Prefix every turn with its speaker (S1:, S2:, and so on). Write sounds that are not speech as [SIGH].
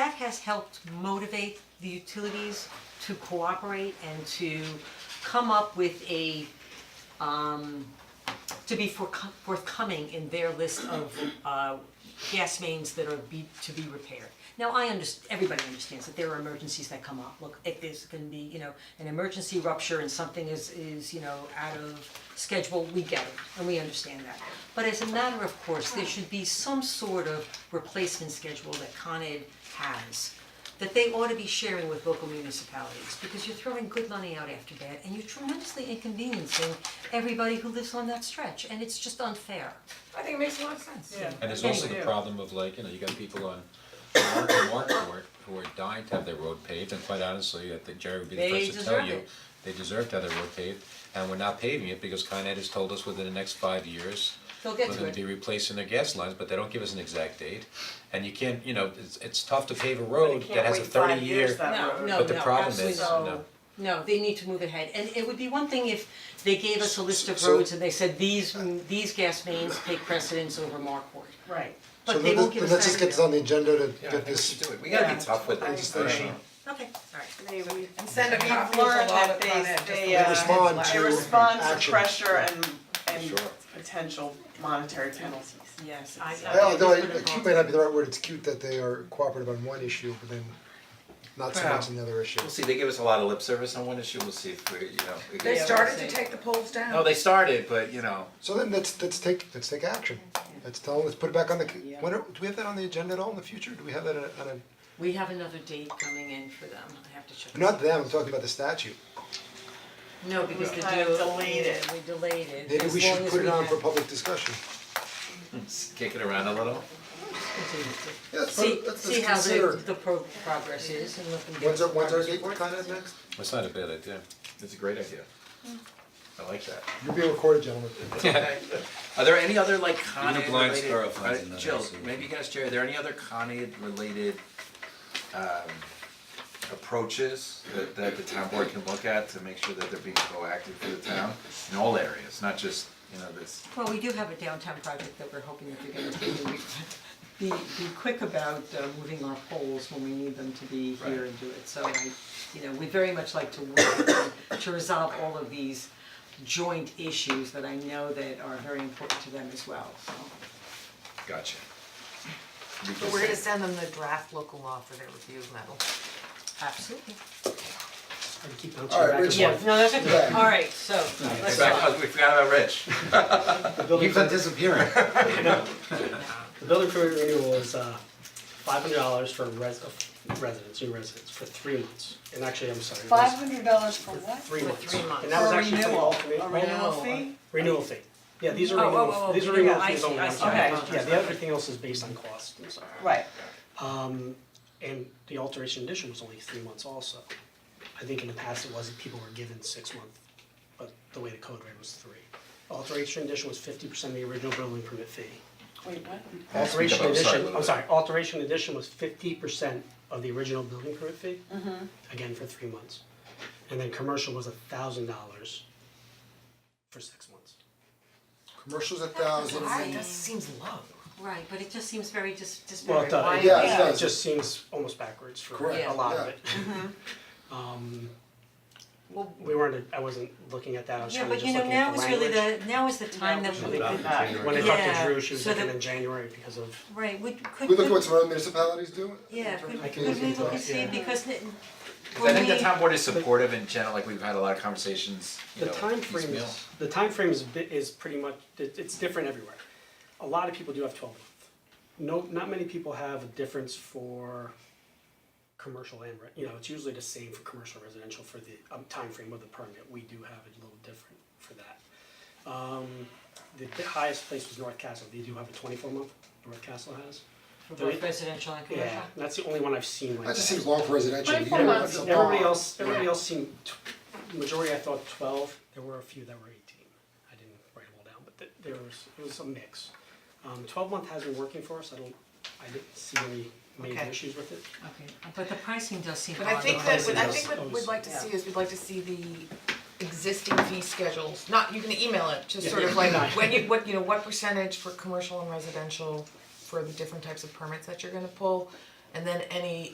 S1: has helped motivate the utilities to cooperate and to come up with a, um, to be forco- forthcoming in their list of, uh, gas mains that are be, to be repaired. Now, I underst- everybody understands that there are emergencies that come up, look, if there's gonna be, you know, an emergency rupture and something is, is, you know, out of schedule, we get it, and we understand that. But as a matter of course, there should be some sort of replacement schedule that Con Ed has, that they ought to be sharing with local municipalities, because you're throwing good money out after bad, and you're tremendously inconveniencing everybody who lives on that stretch, and it's just unfair.
S2: I think it makes a lot of sense. Yeah.
S3: And there's also the problem of like, you know, you got people on Mark and Mark who are, who are dying to have their road paved, and quite honestly, I think Jerry would be the
S1: They
S3: first to tell
S1: deserve
S3: you.
S1: it.
S3: They deserve to have their road paved, and we're not paving it because Con Ed has told us within the next five years,
S1: They'll get
S3: we're
S1: to
S3: gonna
S1: it.
S3: be replacing their gas lines, but they don't give us an exact date. And you can't, you know, it's, it's tough to pave a road that has a thirty year.
S1: No, no,
S3: But the
S1: no,
S3: problem
S1: absolutely
S3: is,
S1: not.
S3: no.
S1: No, they need to move ahead, and it would be one thing if they gave us a list of
S4: So-
S1: roads and they said these, these gas mains take precedence over Markward.
S2: Right.
S4: So
S1: But they
S4: let
S1: won't
S4: us,
S1: give us that.
S4: let's just get this on the agenda
S5: Yeah,
S4: to
S5: I
S4: get
S5: think we
S4: this.
S5: should do it, we gotta
S2: Yeah.
S5: be tough with this,
S4: Yeah.
S5: you know.
S1: Okay, alright.
S2: And
S6: Send a copy of the law to Con Ed, just the way
S4: They
S6: it's
S4: respond
S6: last.
S4: to-
S2: They respond to
S4: action.
S2: pressure and, and
S5: Sure.
S2: potential monetary penalties.
S1: Yes, I, I.
S4: Well, though,
S1: just put it
S4: cute
S1: on.
S4: may not be the right word, it's cute that they are cooperative on one issue, but then not so much on the other issue.
S5: We'll see, they give us a lot of lip service on one issue, we'll see if we, you know. we
S6: They
S5: get-
S6: started to take the polls down.
S5: No, they started, but you know,
S4: So then let's, let's take, let's take action. Let's tell, them. let's put it back on the, when are, do we have that on the agenda at all in the future? Do we have that on a, on
S1: We have another date coming in for them, I have to check.
S4: a, not them, I'm talking about the statute.
S1: No, because the
S2: Kind of
S1: deal,
S2: delayed it.
S1: we delayed it,
S4: Maybe
S1: as
S4: we
S1: long
S4: should
S1: as
S4: put it
S1: we
S4: on
S1: have-
S4: for public discussion.
S5: kick it around a little.
S4: Yeah, let's put
S1: See,
S4: it- let's-
S1: see
S4: let's
S1: how the,
S4: consider.
S1: the pro- progress is and let them get.
S4: When's our, when's our
S1: progress
S4: gate
S1: reports.
S4: kind of next?
S3: It's not a bad idea.
S5: It's a great idea. I like that.
S4: You're being recorded,
S1: [LAUGHS]
S4: gentlemen.
S7: [LAUGHS]
S5: Are there any other like Con
S3: Even
S5: Ed
S3: blind
S5: related,
S3: squirrel finds
S5: uh,
S3: another
S5: Jill,
S3: accident.
S5: maybe you guys, Jerry, are there any other Con Ed related um approaches that that the town board can look at to make sure that they're being proactive for the town in all areas, not just, you know, this.
S1: Well, we do have a downtown project that we're hoping that you're gonna do. Be, be quick about uh, moving our poles when we need them to be here
S5: Right.
S1: and do it, so I, you know, we'd very much like to work with them to resolve all of these joint issues that I know that are very important to them as well, so.
S5: Gotcha.
S8: But we're gonna send them the draft local law for their review medal.
S1: Absolutely.
S4: Alright, Rich,
S1: Yeah, no, that's okay, alright, so, let's
S5: Back-
S1: talk.
S5: oh, we forgot about Rich.
S7: The building,
S5: He's on disappearing.
S7: [LAUGHS] the building permit renewal is uh five hundred dollars for res- uh, residents, new residents, for three months, and actually, I'm sorry, it was
S6: Five hundred dollars for what?
S7: three
S1: For
S7: months.
S1: three months.
S7: And that was
S6: For
S7: actually for the
S6: renewal.
S7: alternate-
S2: A renewal fee?
S7: renewal fee. Yeah, these are
S1: Oh, oh,
S7: renewal,
S1: oh,
S7: these are
S1: oh,
S7: renewal
S1: yeah, I
S7: fees
S1: see,
S7: only,
S1: I
S7: I'm
S1: see.
S7: sorry.
S2: Okay.
S7: Yeah, the everything else is based on cost, I'm sorry.
S2: Right.
S7: Um, and the alteration addition was only three months also. I think in the past it was, that people were given six month, but the way the code read was three. Alteration addition was fifty percent of the original building permit fee.
S2: Wait, what?
S7: Alteration
S5: I'm sorry,
S7: addition,
S5: Lily.
S7: I'm sorry, alteration addition was fifty percent of the original building permit fee.
S1: Mm-hmm.
S7: Again, for three months. And then commercial was a thousand dollars for six months.
S4: Commercials a thousand,
S8: that seems low.
S1: Right, but it just seems very dis-
S7: Well,
S1: disparate,
S7: it
S1: why
S7: does,
S1: are
S4: Yeah,
S1: we-
S4: it
S7: it
S4: does.
S7: just seems almost backwards for
S4: Correct,
S7: a lot of
S4: yeah.
S7: it.
S1: Mm-hmm.
S7: [LAUGHS] Um, we weren't, I wasn't looking at that, I was
S1: Yeah,
S7: trying to
S1: but
S7: just
S1: you know,
S7: looking at
S1: now
S7: the
S1: is really
S7: language.
S1: the, now is the time that we could,
S7: When I talked
S1: Yeah,
S7: to Drew, she was
S1: so
S7: looking
S1: the-
S7: in January because of,
S1: right, would, could,
S4: we look at
S1: could-
S4: what some other municipalities do?
S1: yeah, could,
S7: I can
S1: could
S7: look
S1: we
S7: into
S1: look
S7: it,
S1: and see,
S7: yeah.
S1: because the,
S5: Cause I think the
S1: When we-
S5: town board is supportive in general, like we've had a lot of conversations, you
S7: the
S5: know,
S7: time frame
S5: piecemeal.
S7: is, the timeframe is bi- is pretty much, it it's different everywhere. A lot of people do have twelve month. No, not many people have a difference for commercial and, re- you know, it's usually the same for commercial and residential for the um frame of the permit, we do have it a little different for that. Um, the the highest place was North Castle, they do have a twenty-four month, North Castle has.
S1: for both residential and commercial.
S7: Yeah, that's the only one I've seen like
S4: That
S7: that.
S4: just seems long for residential, you
S2: 24
S4: know,
S2: months.
S4: that's a
S7: Everybody
S4: lot.
S7: else, everybody else seemed, tw- majority I thought twelve, there were a few that were eighteen. I didn't write them all down, but th- there was, it was a mix. Um, twelve month has been working for us, I don't, I didn't see any major
S8: Okay.
S7: issues with it.
S1: Okay, but the pricing does seem
S8: But I
S1: odd,
S8: think
S1: though.
S8: that, I
S7: those-
S8: think what
S7: those-
S8: we'd like to
S2: yeah.
S8: see is, we'd like to see the existing fee schedules, not, you can email it, just sort of
S7: Yeah.
S8: like,
S7: No.
S8: when you, what, you know, what percentage for commercial and residential for the different types of permits that you're gonna pull, and then any